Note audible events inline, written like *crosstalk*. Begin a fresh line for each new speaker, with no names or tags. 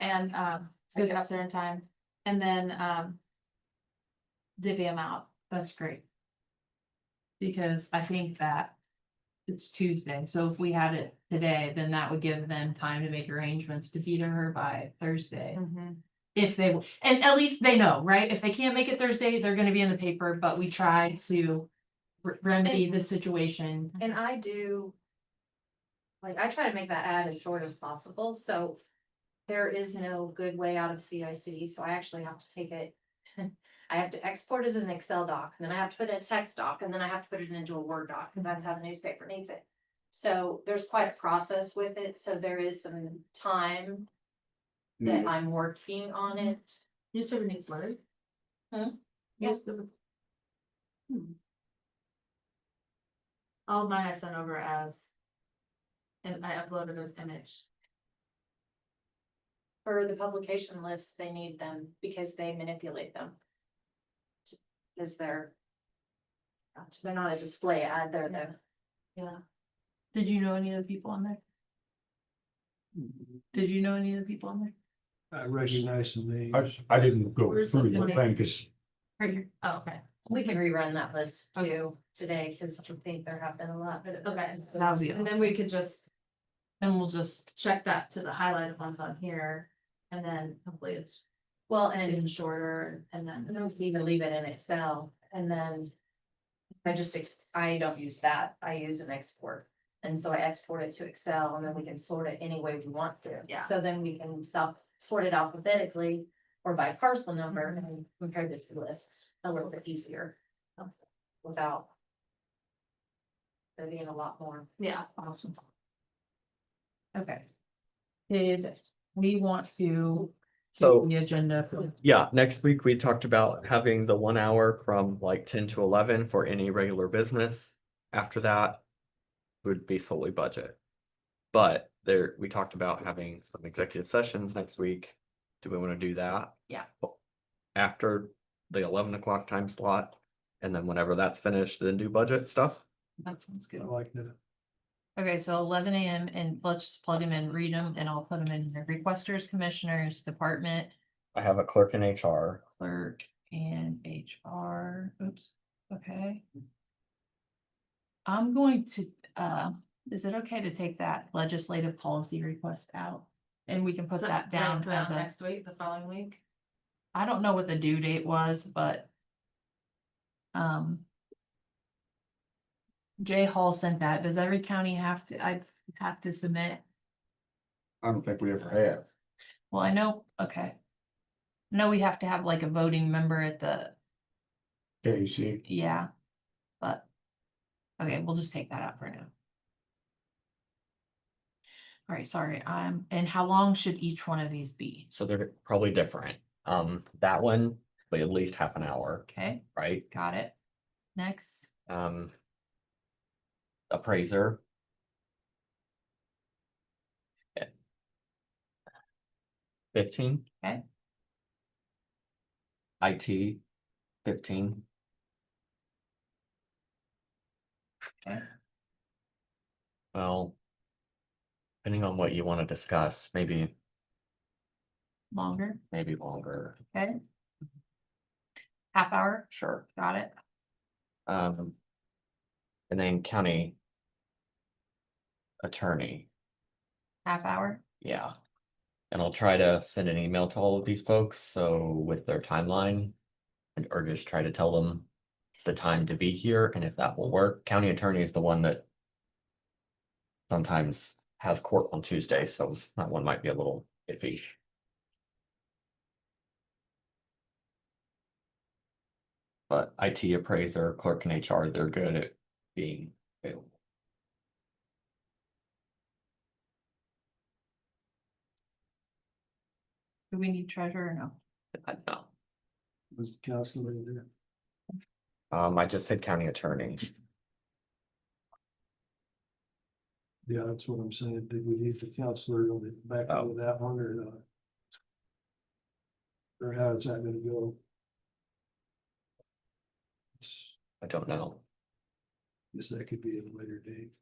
and, um, so get up there in time, and then, um. Divvy them out,
That's great. Because I think that it's Tuesday, so if we had it today, then that would give them time to make arrangements to be to her by Thursday. If they, and at least they know, right? If they can't make it Thursday, they're gonna be in the paper, but we try to re- remedy the situation.
And I do. Like, I try to make that ad as short as possible, so. There is no good way out of CIC, so I actually have to take it. *laughs* I have to export it as an Excel doc, and then I have to put it in a text doc, and then I have to put it into a Word doc, because that's how the newspaper needs it. So there's quite a process with it, so there is some time that I'm working on it.
Newspaper needs letters. Huh?
Yeah.
Newspaper- Hmm.
all of mine I sent over as. And I uploaded as image,
For the publication lists, they need them because they manipulate them. Is there? They're not a display ad, they're the.
yeah,
Did you know any of the people on there? Did you know any of the people on there?
I recognize the name.
I, I didn't go
Where's
through
the
the
connect-
thing, cause
Right here.
oh, okay,
We can rerun that list too today, cause I think there have been a lot, but.
okay,
That would be
and then
awesome.
we could just
Then we'll just,
check that to the highlighted ones on here. And then hopefully it's
Well, and
even shorter, and
I
then,
don't even leave it in Excel and then. I just, ex- I don't use that, I use an export. And so I export it to Excel and then we can sort it any way we want to.
Yeah.
So then we can self, sort it alphabetically or by parcel number
Mm-hmm.
and compare the two lists a little bit easier. um, Without. There being a lot more.
yeah,
awesome. Okay. Did we want to?
So-
The agenda, for-
Mm-hmm. Yeah, next week we talked about having the one hour from like ten to eleven for any regular business. After that would be solely budget. But there, we talked about having some executive sessions next week. Do we want to do that?
Yeah.
After the eleven o'clock time slot, and then whenever that's finished, then do budget stuff.
that sounds
I
good.
like that.
Okay, so eleven AM and let's just plug them in, read them, and I'll put them in the requesters, commissioners, department
I have a clerk in HR.
clerk and HR. Oops, okay. I'm going to, uh, is it okay to take that legislative policy request out? And we can put
So-
that
so uh, I
down
put it
as
out
a,
Next week, the following week,
I don't know what the due date was, but um Jay Hall sent that. Does every county have to, I have to submit
I don't think we ever have.
Well, I know, okay. I know we have to have like a voting member at the,
Yeah, you see,
yeah, but. Okay, we'll just take that out for now. All right, sorry, I'm, and how long should each one of these be?
So they're probably different. Um, that one, like at least half an hour,
Okay,
right?
got it. Next,
Um. Appraiser. Fifteen.
Okay.
IT fifteen.
Okay.
Well. Depending on what you want to discuss, maybe,
longer,
maybe longer,
okay? Half hour,
sure.
got it.
Um. And then county. Attorney.
Half hour,
Yeah. And I'll try to send an email to all of these folks, so with their timeline. And or just try to tell them the time to be here and if that will work. County attorney is the one that. Sometimes has court on Tuesday, so that one might be a little iffy. But IT appraiser, clerk and HR, they're good at being available.
do we need treasurer or no?
I don't know.
Was Councilman in there?
Um, I just said county attorney.
Yeah, that's what I'm saying. Did we need the counselor on the back
Oh.
end of that one or not? Or how is that gonna go? It's-
I don't know.
Guess that could be at a later date.